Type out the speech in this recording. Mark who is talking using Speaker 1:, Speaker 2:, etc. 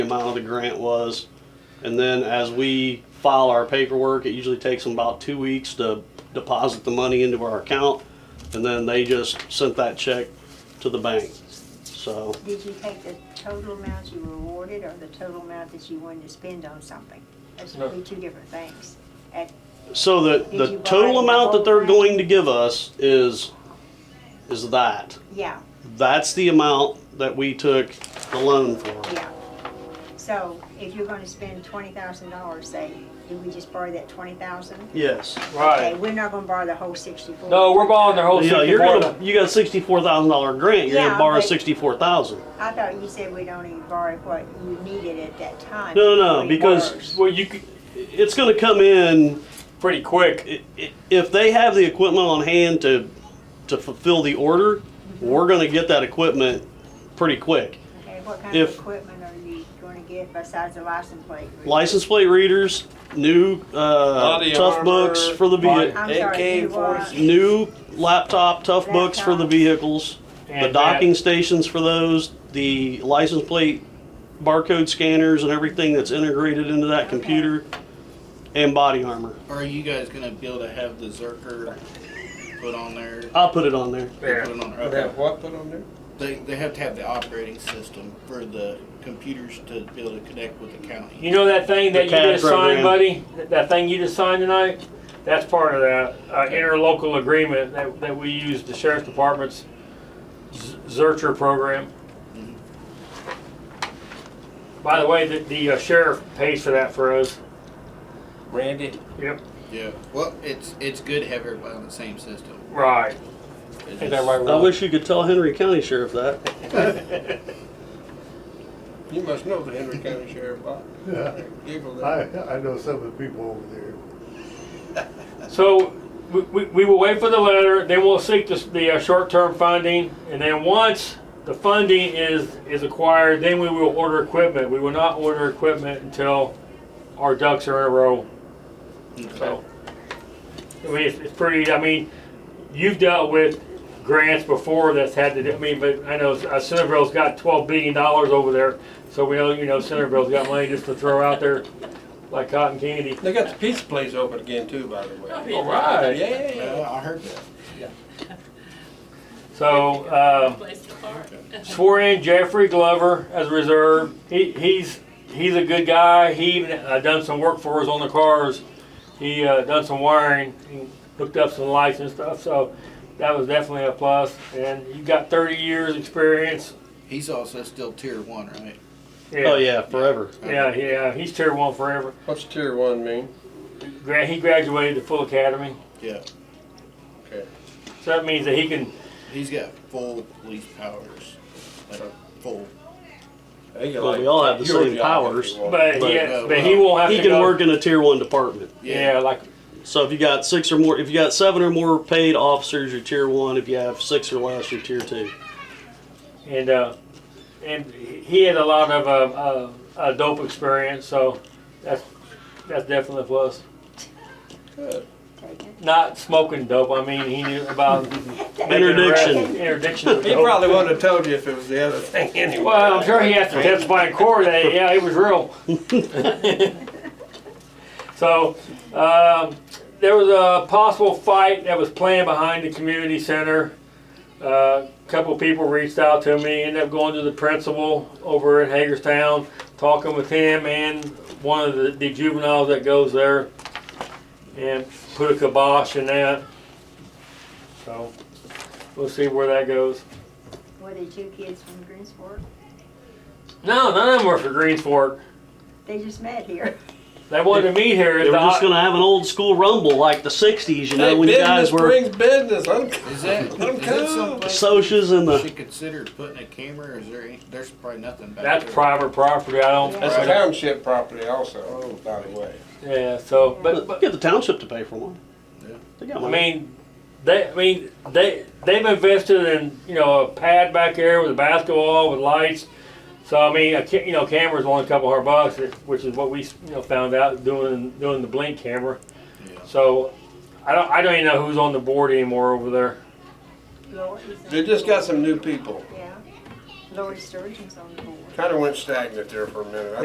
Speaker 1: amount of the grant was. And then as we file our paperwork, it usually takes them about two weeks to deposit the money into our account. And then they just sent that check to the bank. So,
Speaker 2: Did you take the total amount you were awarded or the total amount that you wanted to spend on something? Those would be two different things. At,
Speaker 1: so the,
Speaker 2: Did
Speaker 1: the
Speaker 2: you buy
Speaker 1: total
Speaker 2: the
Speaker 1: amount that
Speaker 2: whole
Speaker 1: they're
Speaker 2: grant?
Speaker 1: going to give us is, is that.
Speaker 2: yeah,
Speaker 1: That's the amount that we took the loan for.
Speaker 2: yeah. So if you're gonna spend twenty thousand dollars, say, do we just borrow that twenty thousand?
Speaker 1: Yes.
Speaker 2: Okay,
Speaker 3: Right.
Speaker 2: we're not gonna borrow the whole sixty-four.
Speaker 3: No, we're borrowing their whole
Speaker 1: Yeah, you're
Speaker 3: 64.
Speaker 1: gonna, you got a sixty-four thousand dollar grant, you're
Speaker 2: Yeah,
Speaker 1: gonna borrow
Speaker 2: but-
Speaker 1: sixty-four thousand.
Speaker 2: I thought you said we'd only borrow what you needed at that time.
Speaker 1: No, no,
Speaker 2: before we borrowed.
Speaker 1: because
Speaker 3: Well, you could,
Speaker 1: it's gonna come in,
Speaker 3: pretty quick.
Speaker 1: i- i- if they have the equipment on hand to, to fulfill the order, we're gonna get that equipment pretty quick.
Speaker 2: Okay, what kind of
Speaker 1: if-
Speaker 2: equipment are you gonna get besides the license plate?
Speaker 1: License plate readers, new, uh,
Speaker 4: Body
Speaker 1: tough
Speaker 4: armor,
Speaker 1: books for the
Speaker 3: body-
Speaker 1: vehi-
Speaker 2: I'm sorry, you want-
Speaker 1: new laptop, tough books for the
Speaker 2: Laptop.
Speaker 1: vehicles, the
Speaker 3: And
Speaker 1: docking
Speaker 3: that-
Speaker 1: stations for those, the license plate barcode scanners and everything that's integrated into that computer, and body armor.
Speaker 4: Are you guys gonna be able to have the Zerker put on there?
Speaker 1: I'll put it on there.
Speaker 4: Put
Speaker 5: Yeah.
Speaker 4: it on there.
Speaker 5: They
Speaker 4: Okay.
Speaker 5: have what put on there?
Speaker 4: They, they have to have the operating system for the computers to be able to connect with the county.
Speaker 3: You know that thing that
Speaker 1: The
Speaker 3: you
Speaker 1: CAD
Speaker 3: just signed,
Speaker 1: program.
Speaker 3: buddy? That- That thing you just signed tonight? That's part of that uh, interlocal agreement that, that we use the sheriff's department's Z- Zurcher program. Mm-hmm. By the way, the, the uh, sheriff pays for that for us.
Speaker 5: Randy?
Speaker 3: Yep.
Speaker 4: Yeah. Well, it's it's good to have everybody on the same system.
Speaker 3: Right.
Speaker 4: It
Speaker 5: Ain't that
Speaker 4: just-
Speaker 5: right,
Speaker 1: I
Speaker 5: Ron?
Speaker 1: wish you could tell Henry County Sheriff that.
Speaker 5: You must know the Henry County Sheriff, Bob.
Speaker 6: Yeah,
Speaker 5: Giggle
Speaker 6: I,
Speaker 5: that.
Speaker 6: I know some of the people over there.
Speaker 3: So we, we, we will wait for the letter, then we'll seek the, the uh, short-term funding, and then once the funding is, is acquired, then we will order equipment. We will not order equipment until our ducks are in a row, so. I mean, it's, it's pretty, I mean, you've dealt with grants before that's had to do, I mean, but I know uh, Centerville's got twelve billion dollars over there, so we know, you know, Centerville's got money just to throw out there like cotton candy.
Speaker 5: They got the pizza place open again too, by the way.
Speaker 3: All right.
Speaker 5: Yeah.
Speaker 4: Yeah, I heard that.
Speaker 3: So, uh,
Speaker 7: place to park.
Speaker 3: swore in Jeffrey Glover as a reserve. He, he's he's a good guy. He even uh, done some work for us on the cars. He uh, done some wiring, he hooked up some lights and stuff. So that was definitely a plus. And you got 30 years experience.
Speaker 4: He's also still tier one, right?
Speaker 3: Yeah.
Speaker 1: Oh, yeah, forever.
Speaker 3: Yeah, yeah. He's tier one forever.
Speaker 5: What's tier one mean?
Speaker 3: Gra- He graduated the full academy,
Speaker 4: Yeah.
Speaker 5: Okay.
Speaker 3: so that means that he can.
Speaker 4: He's got full police powers, like full.
Speaker 5: They got
Speaker 1: Well,
Speaker 5: like
Speaker 1: we all have the
Speaker 5: your
Speaker 1: same
Speaker 5: job if
Speaker 1: powers,
Speaker 5: you want.
Speaker 3: But,
Speaker 1: But,
Speaker 3: yeah,
Speaker 4: uh,
Speaker 3: but he won't have
Speaker 1: He
Speaker 3: to
Speaker 1: can
Speaker 3: go-
Speaker 1: work in a tier one department.
Speaker 3: Yeah, like
Speaker 1: So if you got six or more, if you got seven or more paid officers, you're tier one. If you have six or less, you're tier two.
Speaker 3: and uh, and he had a lot of uh, uh, uh, dope experience, so that's that's definitely a plus.
Speaker 5: Good.
Speaker 3: Not smoking dope. I mean, he knew about making
Speaker 1: Interdiction.
Speaker 3: arrests, interdiction. of
Speaker 5: He
Speaker 3: dope.
Speaker 5: probably wouldn't have told you if it was the other thing anyway.
Speaker 3: Well, I'm sure he has to testify in court that yeah, it was real. so um, there was a possible fight that was planned behind the community center. Uh, A couple people reached out to me. Ended up going to the principal over in Hagerstown, talking with him and one of the, the juveniles that goes there, and put a kibosh in that. So we'll see where that goes.
Speaker 2: Were the two kids from Greensport?
Speaker 3: No, none of them were for Greens Fork.
Speaker 2: They just met here.
Speaker 3: They wanted to meet here. at
Speaker 1: They were
Speaker 3: the-
Speaker 1: just gonna have an old school rumble like the '60s, you know,
Speaker 5: Hey,
Speaker 1: when you guys
Speaker 5: business
Speaker 1: were
Speaker 5: brings business. I'm-
Speaker 4: Is that, is
Speaker 5: I'm
Speaker 4: that
Speaker 5: cool.
Speaker 4: someplace
Speaker 1: socias and
Speaker 4: we
Speaker 1: the
Speaker 4: should consider putting a camera? Or is there? Any, there's probably nothing back
Speaker 3: That's
Speaker 4: there.
Speaker 3: private property. I don't.
Speaker 5: That's
Speaker 4: Right.
Speaker 5: township property also, Oh, by the way.
Speaker 3: Yeah. So, but, but
Speaker 1: get the township to pay for one.
Speaker 4: Yeah.
Speaker 1: They got
Speaker 3: I
Speaker 1: money.
Speaker 3: mean, they. I mean, they. They've invested in you know a pad back there with a basketball with lights. So I mean, a, ca- you know, camera's only a couple hundred bucks, which is what we you know found out doing doing the blink camera.
Speaker 4: Yeah.
Speaker 3: So, I don't. I don't even know who's on the board anymore over there.
Speaker 2: Lori's on
Speaker 5: They just got some new people.
Speaker 2: Yeah. Lori Sturgeon's on the board.
Speaker 5: Kinda went stagnant there for a minute. I